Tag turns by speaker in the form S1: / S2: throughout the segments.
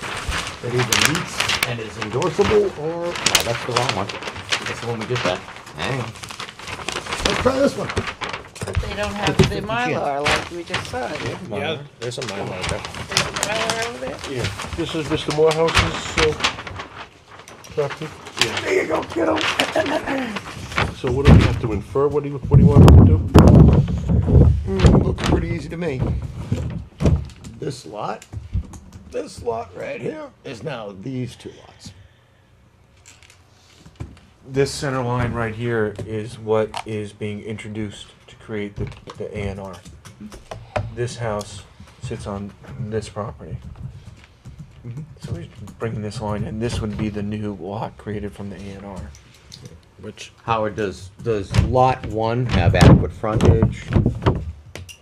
S1: that either meets and is endorsable or, no, that's the wrong one. That's the one we just had. Hang on. Let's try this one.
S2: But they don't have the
S1: Fifty cents.
S2: Mylar like we just saw. There's
S3: Yeah, there's a Mylar there.
S2: Mylar over there.
S4: Yeah, this is Mr. Morehouse's, uh, property.
S1: There you go, kiddo.
S4: So what do we have to infer? What do you, what do you want us to do?
S1: Looking Hmm, pretty easy to me. This lot, this lot right here is now these two lots.
S5: This center line right here is what is being introduced to create the, the A and R. This house sits on this property. So he's bringing this line, and this would be the new lot created from the A and R.
S3: Which,
S1: Howard, does, does lot one have adequate frontage,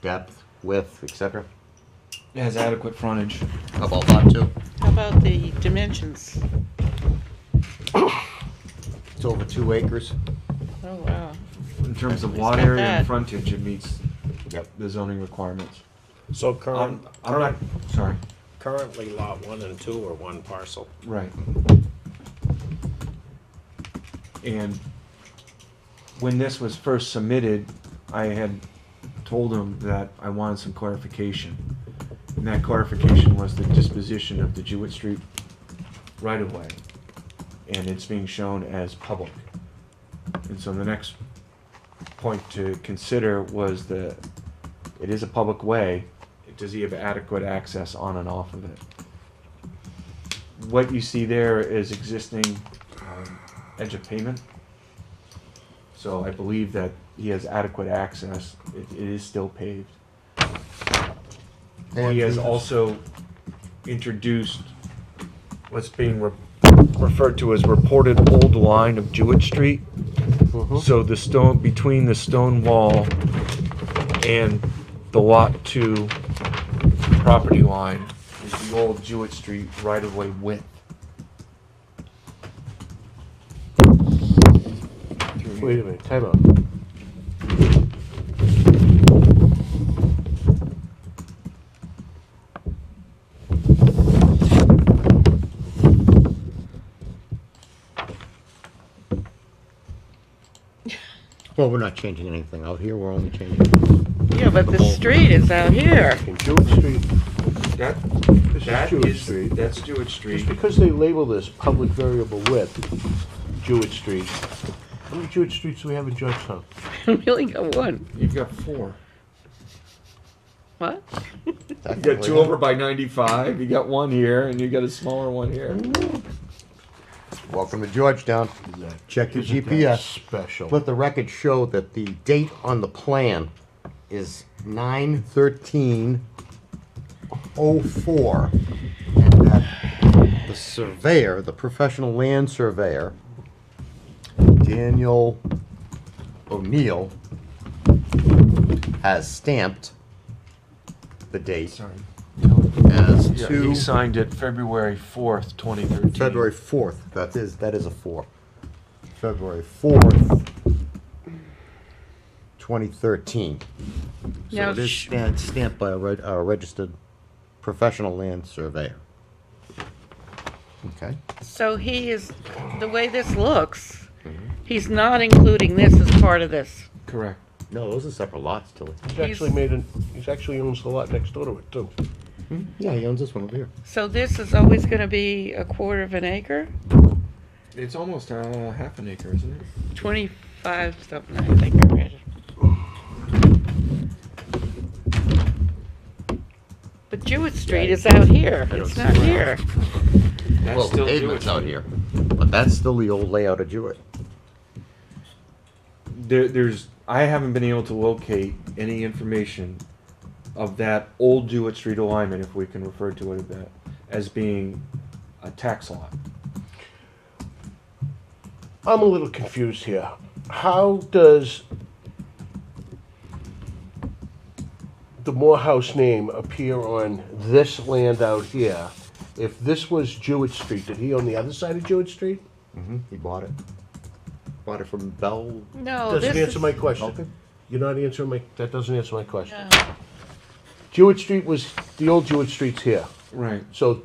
S1: depth, width, et cetera?
S5: It has adequate frontage.
S1: How about lot two?
S2: How about the dimensions?
S1: It's over two acres.
S2: Oh, wow.
S5: In terms of
S2: It's
S5: lot
S2: not
S5: area
S2: bad.
S5: and frontage, it meets
S1: Yep.
S5: the zoning requirements.
S3: so
S5: I'm,
S3: current,
S5: I'm not, sorry,
S3: currently lot one and two are one parcel.
S5: right. And when this was first submitted, I had told him that I wanted some clarification. And that clarification was the disposition of the Jewett Street right-of-way. And it's being shown as public. And so the next point to consider was the, it is a public way, does he have adequate access on and off of it? What you see there is existing um, edge of pavement. So I believe that he has adequate access, it, it is still paved. He has also introduced what's being re- referred to as reported old line of Jewett Street. So the stone, between the stone wall and the lot two property line is the old Jewett Street right-of-way width.
S4: Wait a minute, time out.
S1: Well, we're not changing anything out here, we're only changing.
S2: Yeah, but the street is out here.
S4: In Jewett Street,
S5: That,
S4: this is Jewett Street.
S5: that's Jewett Street.
S4: Just because they label this public variable width, Jewett Street, how many Jewett Streets do we have in Georgetown?
S2: We only got one.
S5: You've got four.
S2: What?
S5: You got two over by ninety-five, you got one here, and you got a smaller one here.
S1: Welcome to Georgetown. Check your
S4: Isn't that
S1: GPS.
S4: Special.
S1: Let the record show that the date on the plan is nine thirteen oh four. And that the surveyor, the professional land surveyor, Daniel O'Neill, has stamped the date
S5: Sorry.
S1: as
S5: He
S1: two
S5: signed it February fourth, twenty thirteen.
S1: February fourth. That is, that is a four. February fourth, twenty thirteen. So
S2: Now
S1: it is
S2: sh-
S1: stamped, stamped by a reg- a registered professional land surveyor. Okay,
S2: So he is, the way this looks, he's not including this as part of this.
S5: Correct.
S1: no, those are separate lots, Tilly.
S4: He's actually made an, he's actually owns the lot next door to it too.
S1: Yeah, he owns this one over here.
S2: So this is always gonna be a quarter of an acre?
S5: It's almost uh, half an acre, isn't it?
S2: Twenty-five something, I think I read it. But Jewett Street is out here, it's not here.
S5: That's
S1: Well, the
S5: still
S1: pavement's
S5: Jewett.
S1: out here, but that's still the old layout of Jewett.
S5: There, there's. I haven't been able to locate any information of that old Jewett Street alignment, if we can refer to it a bit, as being a tax lot.
S4: I'm a little confused here. How does the Morehouse name appear on this land out here? If this was Jewett Street, did he own the other side of Jewett Street?
S1: He bought it. Bought it from Bell.
S2: No,
S4: Doesn't
S2: Oh, this
S4: answer
S2: is.
S4: my question.
S1: Okay.
S4: You're not answering my, that doesn't answer my question.
S2: No.
S4: Jewett Street was, the old Jewett Street's here.
S5: Right.
S4: So